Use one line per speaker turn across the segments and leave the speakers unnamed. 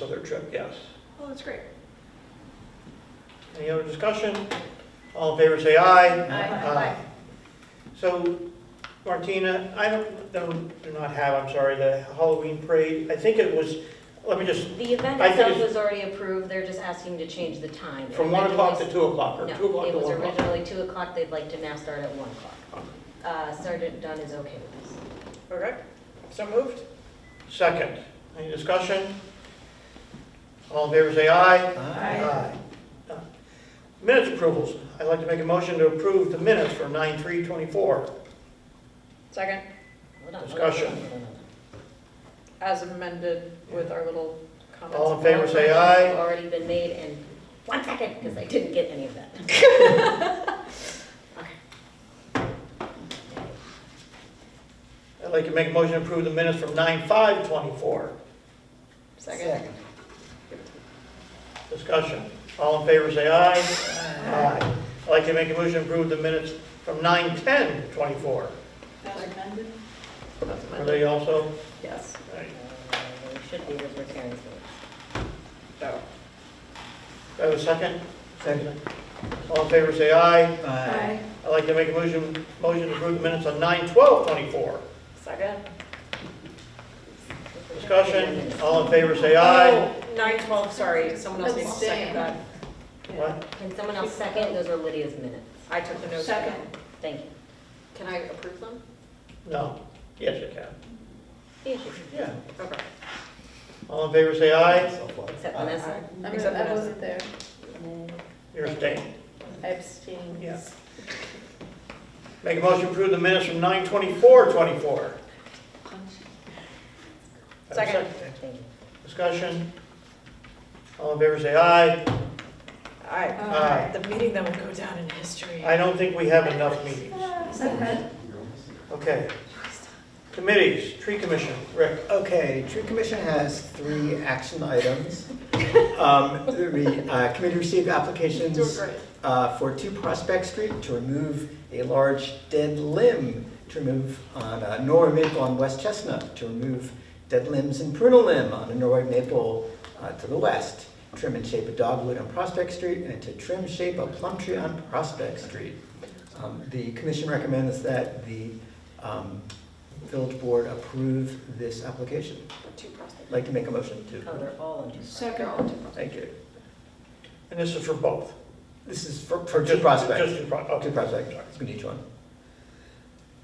other trip, yes.
Oh, that's great.
Any other discussion? All in favor, say aye.
Aye.
So Martina, I don't, don't- do not have, I'm sorry, the Halloween parade. I think it was, let me just,
The event
I think
itself
it's-
was already approved, they're just asking to change the time.
from 1 o'clock to 2 o'clock, or 2
No,
o'clock
it
to
was
1 o'clock.
originally 2 o'clock, they'd like to now start at 1 o'clock. Uh, Sergeant Dunn is okay with this.
Okay, so moved?
Second, any discussion? All in favor, say aye.
Aye.
Aye. Uh, Minutes approvals. I'd like to make a motion to approve the minutes from 9/3/24.
Second,
Hold on, hold on,
Discussion.
hold on, hold on.
as amended with our little comments.
All in favor, say
They've
aye.
Already been made, and one second, because I didn't get any of that.
I'd like to make a motion to approve the minutes from 9/5/24.
Second.
Uh,
Discussion. All in favor, say aye. Aye. I'd like to make a motion to approve the minutes from 9/10/24.
As amended? As
Are
amended,
they also?
yes.
Aye.
Uh, It should be with Karen's vote.
So,
Do I have a second?
Second.
All in favor, say aye.
Aye.
I'd like to make a motion, motion to approve the minutes on 9/12/24.
second.
Discussion. All in favor, say aye.
Oh, Nine twelve, sorry, someone else needs to second that.
Oh.
What?
Can someone else second? Those are Lydia's minutes.
I took the notes.
Second.
Thank you.
Can I approve them?
No. Yes, you can.
Yeah, sure.
Yeah.
Okay.
All in favor, say aye.
So far.
Except
Aye.
Vanessa.
I mean,
Except
I
Vanessa.
wasn't there.
You're abstaining.
I abstained.
Yeah. Make a motion to approve the minutes from 9/24/24. Do I have a
Second.
Thank you.
Discussion. All in favor, say aye.
Aye.
Aye.
The meeting that will go down in history.
I don't think we have enough meetings. Okay. Committees, tree commission, Rick.
Okay, tree commission has three action items. Um, The uh, committee received applications
Doing great.
uh, for two Prospect Street to remove a large dead limb, to remove on uh, Norway maple on West Chestnut, to remove dead limbs and prunal limb on a Norway maple uh, to the west, trim and shape a dogwood on Prospect Street, and to trim shape a plum tree on Prospect Street. Um, The commission recommends that the um, village board approve this application.
Two prospects.
I'd Like to make a motion
Oh,
to?
they're all on two.
Second.
Thank you.
And this is for both?
This is for, for two
Just-
prospects.
Just two pro-
Two
okay.
prospects, it's gonna each one.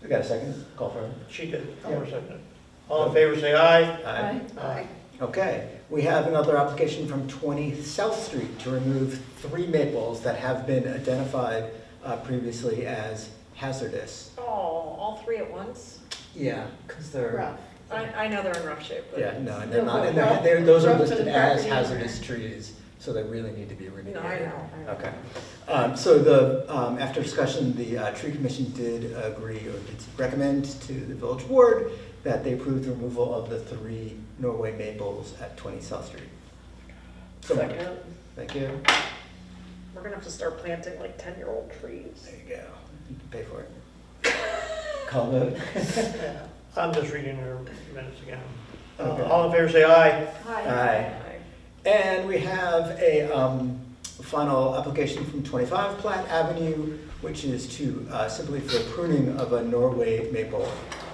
We got a second? Call for it.
She did, I'm gonna second it. All in favor, say aye.
Aye. Okay, we have another application from 20 South Street to remove three maples that have been identified uh, previously as hazardous.
Oh, all three at once?
Yeah, because they're,
Rough.
I, I know they're in rough shape, but.
yeah, no, and they're
No,
not,
but
and they're,
rough-
they're- those are
rough and
listed as
property owner.
hazardous trees, so they really need to be remediated.
No, I know.
Okay, um, so the, um, after discussion, the uh, tree commission did agree or did recommend to the village board that they approve the removal of the three Norway maples at twenty South Street. So moved.
Second.
Thank you.
We're gonna have to start planting like ten-year-old trees.
There you go. You can Pay for it. Call vote.
Yeah. I'm just reading her minutes again. Uh,
Okay.
All in favor, say aye.
Aye. And we have a um, final application from 25 Platt Avenue, which is to, uh, simply for pruning of a Norway maple.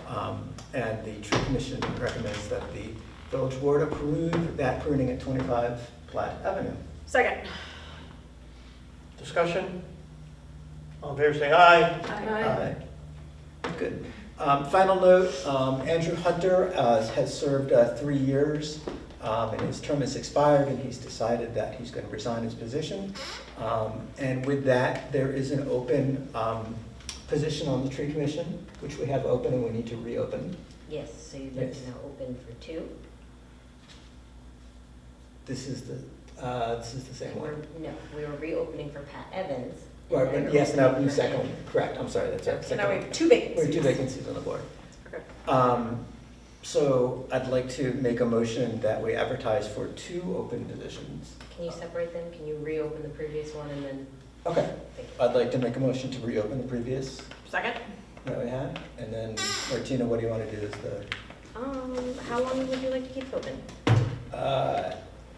Um, And the tree commission recommends that the village board approve that pruning at 25 Platt Avenue.
Second.
Discussion? All in favor, say aye.
Aye.
Good. Um, Final note, um, Andrew Hunter uh, has served uh, three years, um, and his term has expired, and he's decided that he's going to resign his position. Um, And with that, there is an open um, position on the tree commission, which we have open and we need to reopen.
Yes, so you'd like to
Yes.
now open for two?
This is the, uh, this is the same
And we're,
one.
no, we were reopening for Pat Evans. and
Right,
now
but
you're
Yes, now
opening
the
for
second one,
Andrew.
correct, I'm sorry, that's
So now we
right. second one.
have two
We have
vacancies.
two vacancies on the board.
Okay.
Um, So I'd like to make a motion that we advertise for two open positions.
Can you separate them? Can you reopen the previous one and then,
Okay,
thank you.
I'd like to make a motion to reopen the previous
Second?
that we had. And then Martina, what do you want to do as the,
Um, how long would you like to keep open?
uh,